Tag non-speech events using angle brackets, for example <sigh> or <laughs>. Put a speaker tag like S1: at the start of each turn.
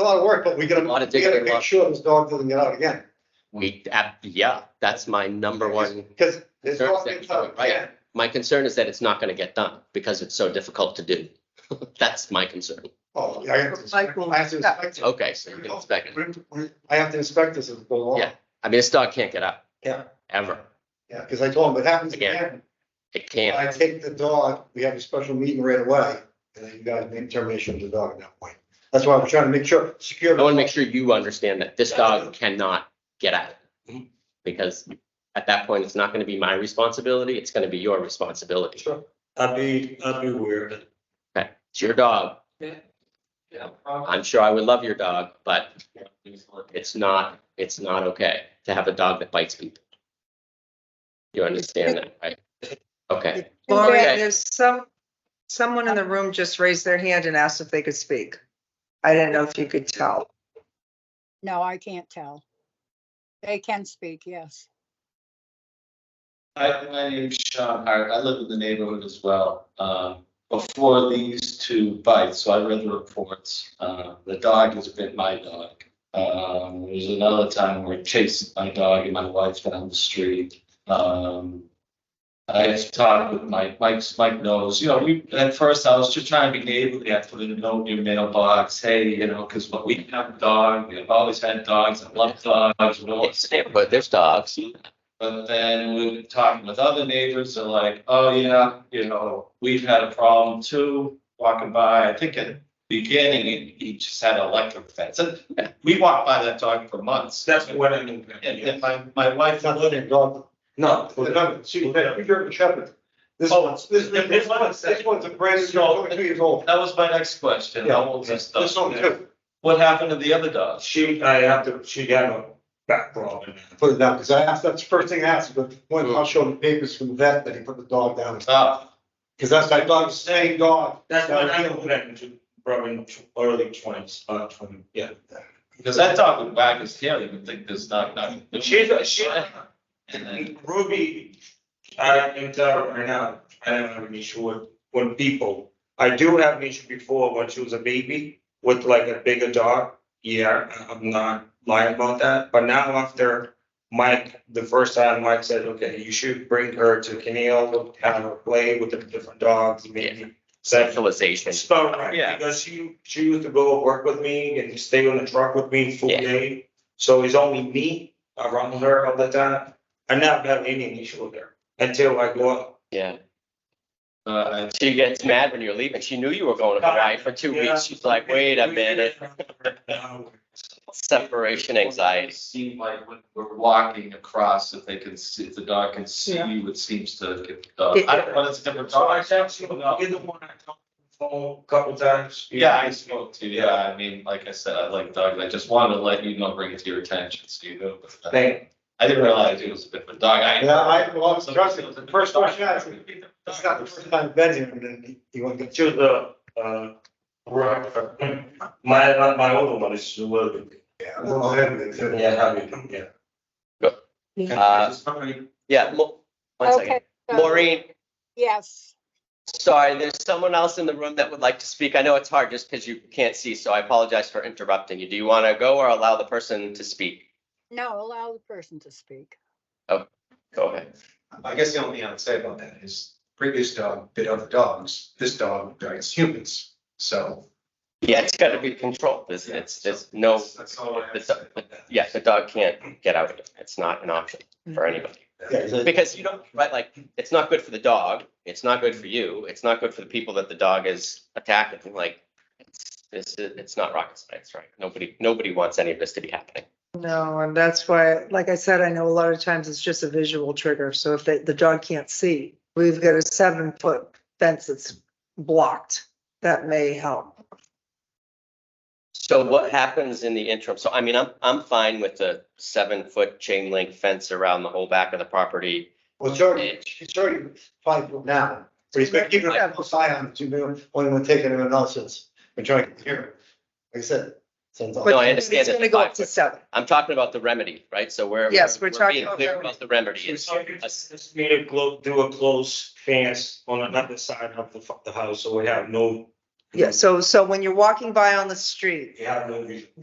S1: a lot of work, but we gotta,
S2: Lot of
S1: we gotta
S2: digging, lot-
S1: make sure this dog doesn't get out again.
S2: We, ab- yeah, that's my number one.
S1: Cause this
S2: Sure,
S1: dog gets out
S2: right.
S1: again.
S2: My concern is that it's not gonna get done because it's so difficult to do. <laughs> That's my concern.
S1: Oh, yeah, I have to inspect, I have to inspect it.
S2: Okay, so you can inspect it.
S1: We- we- I have to inspect this as it goes along.
S2: Yeah. I mean, this dog can't get up.
S1: Yeah.
S2: Ever.
S1: Yeah, cause I told him, if it happens
S2: Again.
S1: again,
S2: It can't.
S1: I take the dog, we have a special meeting right away. And then you guys make termination of the dog at that point. That's why I'm trying to make sure, secure.
S2: I wanna make sure you understand that this dog cannot get out. Because at that point, it's not gonna be my responsibility, it's gonna be your responsibility.
S1: Sure.
S3: I'd be, I'd be aware of it.
S2: Okay, it's your dog.
S3: Yeah.
S2: I'm sure I would love your dog, but it's not, it's not okay to have a dog that bites people. You understand that, right? Okay,
S4: Lori,
S2: Okay.
S4: there's some, someone in the room just raised their hand and asked if they could speak. I didn't know if you could tell.
S5: No, I can't tell. They can speak, yes.
S6: Hi, my name's Sean Hart. I live in the neighborhood as well. Um, Before these two bites, so I read the reports. Uh, The dog has bit my dog. Um, There's another time where it chased my dog and my wife down the street. Um, I've talked with Mike. Mike's, Mike knows, you know, we, at first I was just trying to be neighborly. I put in a note in your mailbox, hey, you know, because we have a dog. We've always had dogs. I love dogs. We always-
S2: but there's dogs.
S6: but then we were talking with other neighbors, they're like, oh yeah, you know, we've had a problem too, walking by, I think at the beginning, he- he just had electric fence, and we walked by that dog for months.
S3: That's what I mean.
S6: And, and my, my wife,
S1: It's not letting a dog.
S3: No.
S1: No, she, you're a shepherd. This,
S6: Oh, it's-
S1: this, this one's, this one's a brand new, dog, only two years old.
S6: that was my next question, how old is this
S1: This one
S6: dog?
S1: too.
S6: What happened to the other dog?
S3: She, I have to, she had a back problem.
S1: Put it down, because I asked, that's the first thing I asked, but when I'll show the papers from the vet that he put the dog down.
S6: Oh,
S1: Because that's my dog's saying dog.
S3: That's why I don't put it into probably tw- early twenties, uh, twenty, yeah.
S6: because that dog would wag his tail, you would think there's not, not.
S3: But she's, a- she,
S6: And then-
S3: Ruby, I can tell right now, I don't have an issue with, with people. I do have an issue before when she was a baby with like a bigger dog. Yeah, I- I'm not lying about that, but now after Mike, the first time Mike said, okay, you should bring her to Canal, have her play with the different dogs, maybe. Set
S2: Centralization.
S3: it's about right,
S6: Yeah.
S3: because she, she used to go work with me and stay on the truck with me full
S2: Yeah.
S3: day. So it's only me around her all the time. I never have any issue with her until I go out.
S2: Yeah,
S6: Uh,
S2: she gets mad when you're leaving. She knew you were going to Hawaii for two weeks. She's like, wait a minute, separation anxiety.
S6: Seem like when we're walking across, if they can see, if the dog can see you, it seems to get, uh, I don't, know, it's a different
S3: <laughs> So I
S6: dog.
S3: text you, either one, I talked on the phone a couple times.
S6: Yeah, I spoke to, yeah, I mean, like I said, I like dogs, I just wanted to let you know, bring it to your attention, so you know. but, uh,
S3: Thank,
S6: I didn't realize it was a different dog, I.
S1: Yeah, I, well, it's interesting. The first question I asked, him, it's not the first time I've been here, and then he- he went, to
S3: to the, uh, my, my, my older one is a little bit,
S1: yeah, well, I haven't been to-
S3: yeah, happy, yeah.
S2: Uh, Yeah, Mo- one second.
S5: Okay. so-
S2: Maureen,
S5: Yes,
S2: sorry, there's someone else in the room that would like to speak. I know it's hard just because you can't see, so I apologize for interrupting you. Do you want to go or allow the person to speak?
S5: no, allow the person to speak.
S2: Go ahead.
S7: I guess the only thing I would say about that is previous dog bit other dogs, this dog bites humans, so.
S2: Yeah, it's got to be controlled. There's, it's, there's no,
S7: That's all I have to
S2: it's-
S7: say about that.
S2: yeah, the dog can't get out of it. It's not an option for
S4: Mm-hmm.
S2: anybody.
S1: yeah, he's like,
S2: Because you don't, right, like, it's not good for the dog, it's not good for you, it's not good for the people that the dog is attacking, like. It's, this, is- it's not rocket science, right? Nobody, nobody wants any of this to be happening.
S4: No, and that's why, like I said, I know a lot of times it's just a visual trigger. So if the, the dog can't see, we've got a seven foot fence that's blocked. That may help.
S2: So what happens in the interim? So I mean, I'm, I'm fine with the seven foot chain link fence around the whole back of the property.
S1: well, it's already, she's already five foot now, but he's been keeping a close eye on it, too, man, only when taking him out since, been trying to hear him. Like I said, since.
S2: No,
S4: But
S2: I understand
S4: It's
S2: that
S4: gonna
S2: the
S4: go
S2: five
S4: up to
S2: foot-
S4: seven.
S2: I'm talking about the remedy, right? So we're.
S4: Yes, we're talking
S2: being
S4: about
S2: clear
S4: remedy.
S2: About the remedy is,
S3: So you just need to glo- do a close fence on another side of the, fu- the house, so we have no
S4: Yeah, so, so when you're walking by on the street,
S3: They have no reason.